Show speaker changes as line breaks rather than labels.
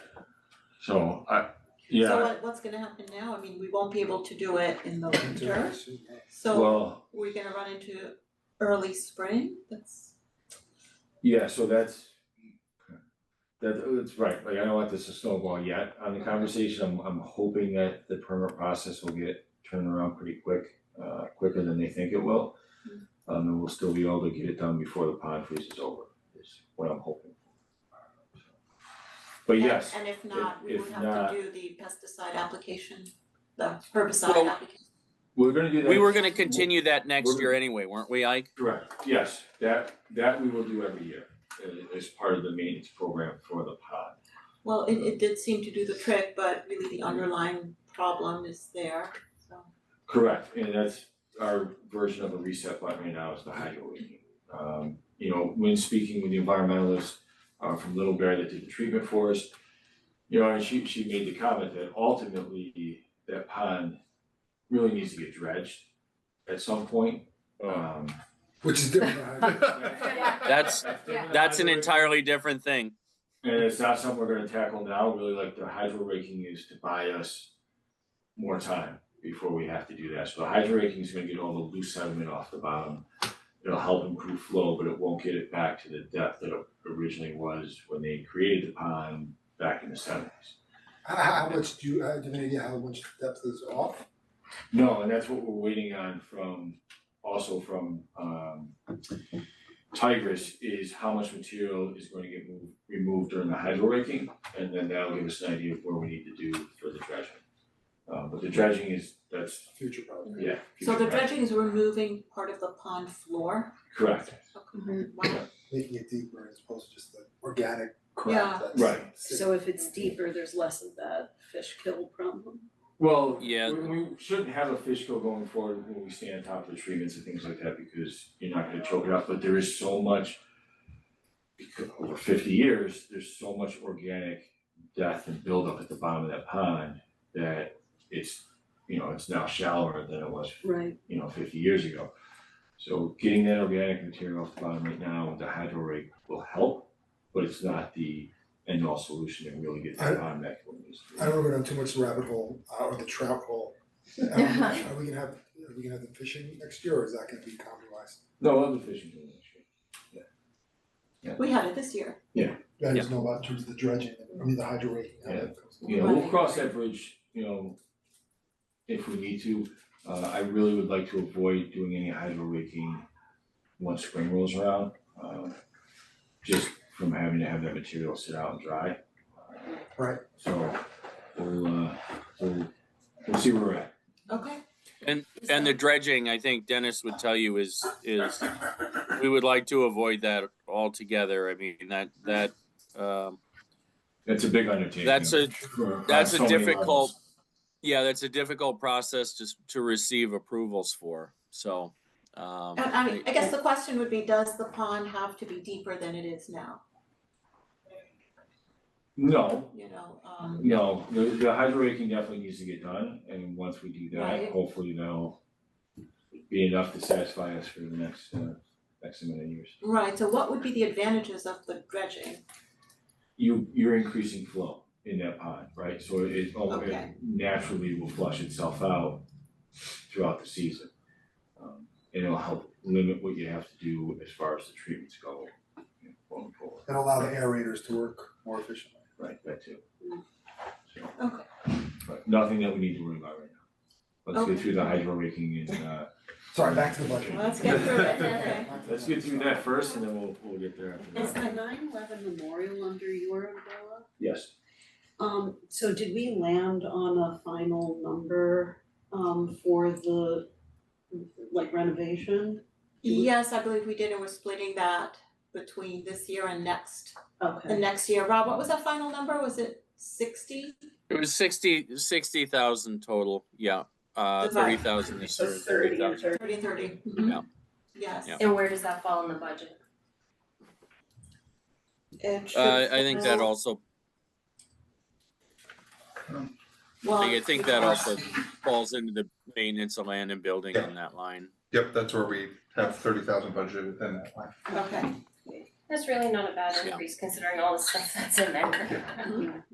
So I, yeah,
So what what's gonna happen now? I mean, we won't be able to do it in the winter, so
well,
we're gonna run into early spring, that's,
yeah, so that's. That, it's right, like I don't want this to snowball yet, on the conversation, I'm I'm hoping that the permit process will get turned around pretty quick, uh quicker than they think it will.
Mm-hmm.
Um and we'll still be able to get it done before the pond freeze is over, is what I'm hoping. But
and
yes,
and if not, we
if
would
not-
have to do the pesticide application, the herbicide
Well-
application.
we're gonna do that.
We were gonna continue that next
We're-
year anyway, weren't we, Ike?
Correct, yes, that that we will do every year, uh as part of the maintenance program for the pond.
Well, it it did seem to do the trick, but really the underlying problem is there, so.
Correct, and that's our version of a reset button right now is the hydro leaking. Um, you know, when speaking with the environmentalist uh from Little Bear that did the treatment for us, you know, and she she made the comment that ultimately that pond really needs to get dredged at some point. Um
Which is different.
That's- That's an entirely different thing.
And it's not something we're gonna tackle now, really like the hydro raking is to buy us more time before we have to do that, so the hydro raking is gonna get all the loose sediment off the bottom. It'll help improve flow, but it won't get it back to the depth that it originally was when they created the pond back in the seventies.
How, how much do you, uh, do you have any idea how much depth is off?
No, and that's what we're waiting on from, also from um Tigris is how much material is going to get moved, removed during the hydro raking. And then that'll give us an idea of where we need to do for the dredging. Uh, but the dredging is, that's,
Future problem.
yeah.
So
future
the
dredging.
dredging is removing part of the pond floor,
Correct,
okay, wow,
Making it deeper as opposed to just the organic
Yeah.
crap that's.
Right.
So if it's deeper, there's less of that fish kill problem.
well,
Yeah.
we we shouldn't have a fish kill going forward when we stay on top of the treatments and things like that because you're not gonna choke it up, but there is so much because over fifty years, there's so much organic death and buildup at the bottom of that pond that it's, you know, it's now shallower than it was,
Right.
you know, fifty years ago. So getting that organic material off the bottom right now with the hydro rate will help, but it's not the end all solution to really get
I-
the pond back where it needs to be.
I don't wanna go down too much the rabbit hole, uh, or the trout hole. Are we are we gonna have, are we gonna have the fishing next year, or is that gonna be compromised?
No, other fishing doing that shit.
we had it this year,
I just know about in terms of the dredging, I mean, the hydro raking. how that goes.
You know, we'll
Right.
cross that bridge, you know, if we need to. Uh, I really would like to avoid doing any hydro raking once spring rolls around, uh, just from having to have that material sit out and dry.
Right.
So we'll, uh, we'll, we'll see where we're at.
okay?
And the dredging, I think Dennis would tell you is, is, we would like to avoid that altogether. I mean, that, that, um,
That's a big undertaking.
that's a,
for-
that's a
on so many
difficult-
levels.
yeah, that's a difficult process just to receive approvals for, so. um,
And I mean, I guess the question would be, does the pond have to be deeper than it is now,
No,
you know, um,
no, the, the hydro raking definitely needs to get done, and once we do that,
Right.
hopefully that'll be enough to satisfy us for the next, uh, next amount of years.
right, so what would be the advantages of the dredging?
you you're increasing flow in that pond, right? So it oh, it
Okay.
naturally will flush itself out throughout the season. Um and it'll help limit what you have to do as far as the treatments go you know, going forward,
And allow the aerators to work more efficiently.
right, that too. So,
Okay.
But nothing that we need to worry about right now. Let's get
Okay.
through the hydro raking and uh
Sorry, back to the budget.
Let's get through it, okay.
let's get through that first and then we'll we'll get there
Is
after that.
the nine eleven memorial under your umbrella?
Yes,
Um, so did we land on a final number, um, for the, like renovation?
Yes, I believe we did, and we're splitting that between this year and next, the
Okay,
next year, Rob, what was that final number, was it sixty?
It was sixty, sixty thousand total, yeah, uh,
Divide.
thirty thousand this
So
year,
it's thirty
thirty
and
thousand.
thirty.
Thirty, thirty,
Yeah.
mhm, yes.
Yeah.
And where does that fall in the budget?
It should
Uh, I think that
fall-
also,
well,
I think that
yeah.
also falls into the maintenance of land and building on that line.
Yep, that's where we have thirty thousand budgeted within that line.
Okay,
That's really not a bad
Yeah.
increase considering all the stuff that's in there.
Mhm.